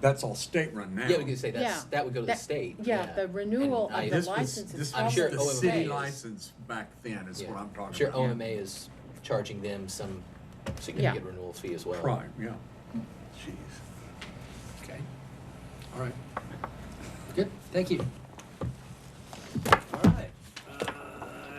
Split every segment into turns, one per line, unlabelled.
that's all state-run now.
Yeah, we could say that's,
Yeah.
that would go to the
That-
state.
Yeah, the renewal
I-
of the
This was-
license is
This
I'm
probably.
was
sure
the
OMA
city
is-
license back then is
Yeah.
what I'm
I'm
talking
sure
about.
OMA is charging them some significant renewal fee as well.
Prime, yeah. Jeez.
Okay,
All right.
good, thank you.
All right, uh,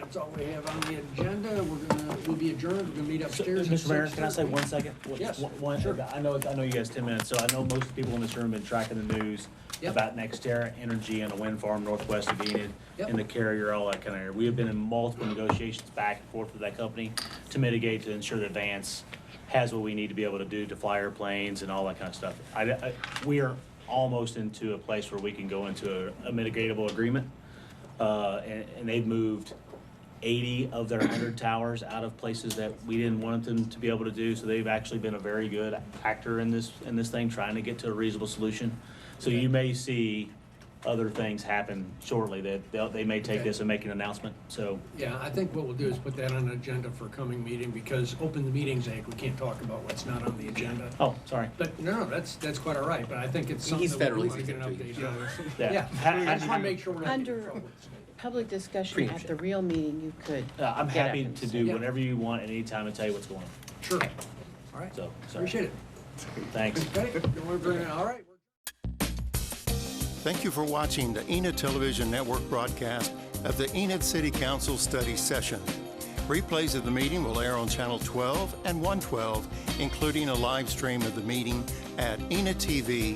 that's all we have on the agenda. We're gonna, we'll be adjourned, we're gonna meet
So,
upstairs. at
Mr. Mayor, can I say
6:30.
one second? One-
Yes,
one- one-
sure.
I know, I know you guys ten minutes, so I know most of the people in this room have been tracking the news
Yep.
about NextEra Energy and a wind farm northwest of Enid
Yep.
and the carrier, all that kind of area. We have been in multiple negotiations back and forth with that company to mitigate, to ensure that Vance has what we need to be able to do to fly airplanes and all that kind of stuff. I, I, we are almost into a place where we can go into a- a mitigatable agreement. Uh, and, and they've moved eighty of their hundred towers out of places that we didn't want them to be able to do. So they've actually been a very good actor in this, in this thing, trying to get to a reasonable solution. So you may see other things happen shortly that they'll, they may take this and make an announcement, so.
Yeah, I think what we'll do is put that on an agenda for coming meeting, because Open the Meetings Act, we can't talk about what's not on the agenda.
Oh, sorry.
But, no, no, that's, that's quite all right, but I think it's something
He's
that we
federally
want to get an
sensitive to
update on.
Yeah.
Yeah, I just wanna make sure we're not getting in
Under-
trouble.
Public discussion at the
Preemption.
real meeting, you could.
Uh, I'm
get up
happy
and
to
say-
do
Yeah.
whatever you want at any time and tell you what's going on,
Sure, all right,
so, sorry.
appreciate it.
Thanks.
Okay, don't worry, Brendan. all right.
Thank you for watching the Enid Television Network broadcast of the Enid City Council Study Session. Replays of the meeting will air on Channel 12 and 112, including a live stream of the meeting at enidtv.org.